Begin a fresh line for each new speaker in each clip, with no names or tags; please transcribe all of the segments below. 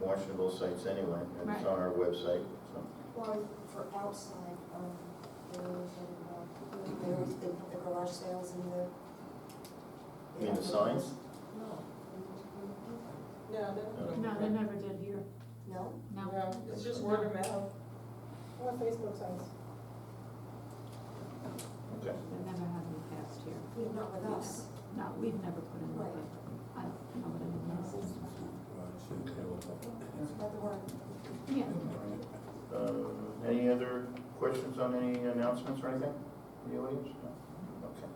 questionable sites anyway, and it's
Right.
on our website, so.
Well, for outside, um, there was, uh, there was the the garage sales and the.
You mean the signs?
No, no,
No.
they
No, they never did here,
No?
no.
don't. No, it's just word of mouth.
Or Facebook signs.
Okay.
They never had any passed here.
Yeah, not with us.
No, we've never put in,
Right.
I don't know what anyone else is.
There's another one.
Yeah,
Uh, Any other questions on any announcements or anything? from The audience? No? Okay.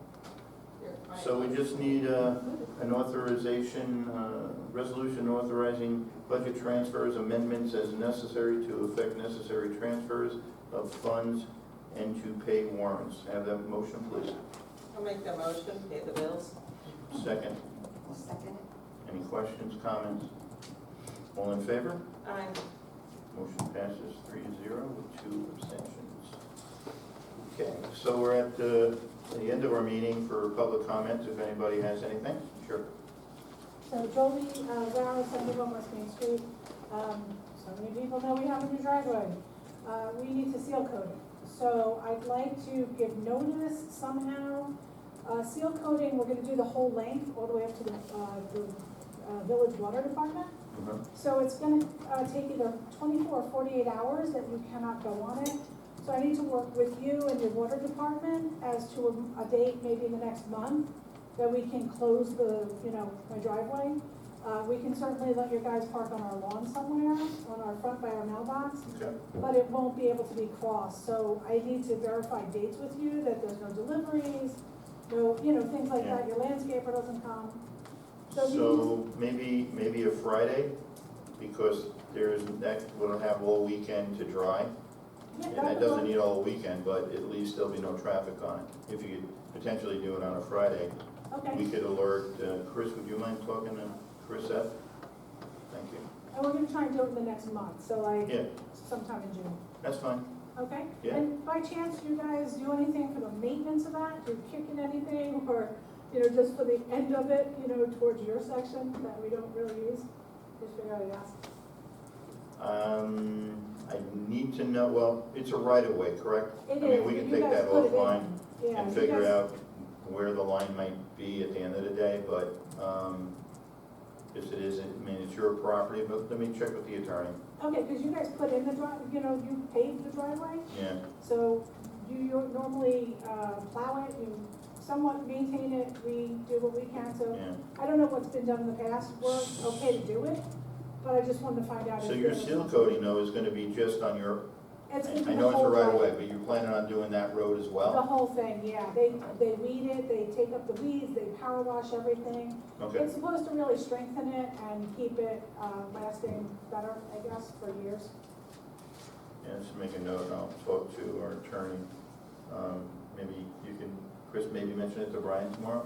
Here, I-
So we just need uh, an authorization, uh, resolution authorizing budget transfers, amendments as necessary to effect necessary transfers of funds and to pay warrants. Have that motion, please.
I'll make the motion, pay the bills.
Second.
I'll second it.
Any questions, comments? All in favor?
Aye.
Motion passes three to zero with two abstentions. Okay, so we're at the, the end of our meeting for public comments, if anybody has anything. Sure.
So Jolie, uh, Brown, Centerville, West Main Street, um, so many people know we have a new driveway. Uh, we need to seal coat it, so I'd like to give notice somehow. Uh, seal coating, we're gonna do the whole length, all the way up to the, uh, the, uh, village water department.
Mhm.
So it's gonna, uh, take either twenty-four or forty-eight hours that you cannot go on it. So I need to work with you and your water department as to a, a date, maybe in the next month, that we can close the, you know, my driveway. Uh, we can certainly let your guys park on our lawn somewhere, on our front by our mailbox,
Okay.
but it won't be able to be crossed, so I need to verify dates with you, that there's no deliveries, no, you know, things like that, your landscaper doesn't come. So we can
So maybe, maybe a Friday, because there's, that will have all weekend to dry.
Yeah,
And
that
that
would
doesn't
work.
need all weekend, but at least there'll be no traffic on it. If you could potentially do it on a Friday,
Okay,
we could alert, uh, Chris, would you mind talking to Chris F? Thank you.
and we're gonna try and do it in the next month, so like
Yeah,
sometime in June,
that's fine.
okay?
Yeah.
And by chance, you guys do anything for the maintenance of that, do you kick in anything, or, you know, just for the end of it, you know, towards your section that we don't really use? Just figure out, yes.
Um, I need to know, well, it's a right of way, correct?
It
I mean,
is,
we
but
can
you
take
guys
that
put it
offline
in. Yeah,
and
you
figure
guys-
out where the line might be at the end of the day, but, um, if it is, I mean, it's your property, but let me check with the attorney.
Okay, because you guys put in the drive, you know, you paved the driveway,
Yeah,
so you you normally uh, plow it, you somewhat maintain it, we do what we can, so
yeah.
I don't know what's been done in the past, we're okay to do it, but I just wanted to find out.
So
if
your
there's-
seal coating though is gonna be just on your,
It's gonna be
I
the
know it's a
whole
right of
road.
way, but you're planning on doing that road as
The
well?
whole thing, yeah, they, they weed it, they take up the weeds, they power wash everything.
Okay,
It's supposed to really strengthen it and keep it uh, lasting better, I guess, for years.
yeah, just make a note, and I'll talk to our attorney. Um, maybe you can, Chris, maybe mention it to Brian tomorrow?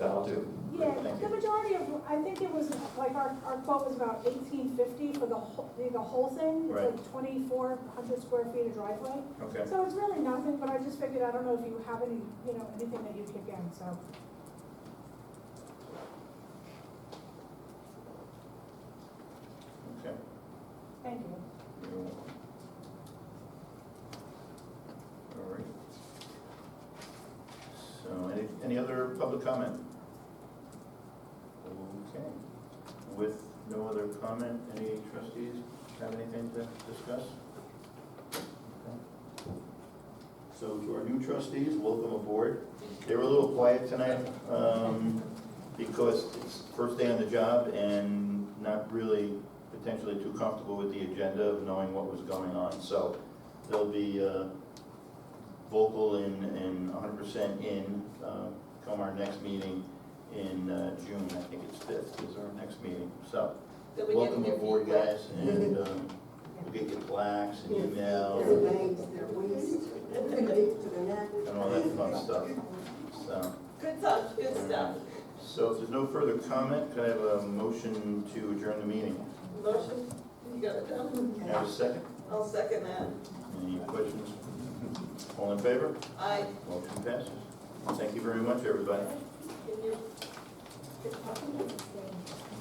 That'll do.
Yeah,
Thank
the
you.
majority of, I think it was, like, our, our quote was about eighteen fifty for the whole, the whole thing.
Right.
It's like twenty-four hundred square feet of driveway.
Okay,
So it's really nothing, but I just figured, I don't know if you have any, you know, anything that you kick in, so.
okay.
Thank you.
You're welcome. All right. So any, any other public comment? Okay. With no other comment, any trustees have anything to discuss? Okay. So to our new trustees, welcome aboard. They were a little quiet tonight, um, because it's first day on the job and not really potentially too comfortable with the agenda of knowing what was going on. So they'll be uh, vocal and, and hundred percent in, uh, come our next meeting in uh, June, I think it's fifth is our next meeting. So
Did we get
welcome
your
aboard,
feedback?
guys, and um, we'll get your plaques and
Their
emails
legs, their waist, to the neck.
and all that fun stuff. So,
Good stuff, good stuff.
so if there's no further comment, could I have a motion to adjourn the meeting?
Motion, you got it done?
Can I Have a second?
I'll second that.
Any questions? All in favor?
Aye.
Motion passes. Thank you very much, everybody.
Can you-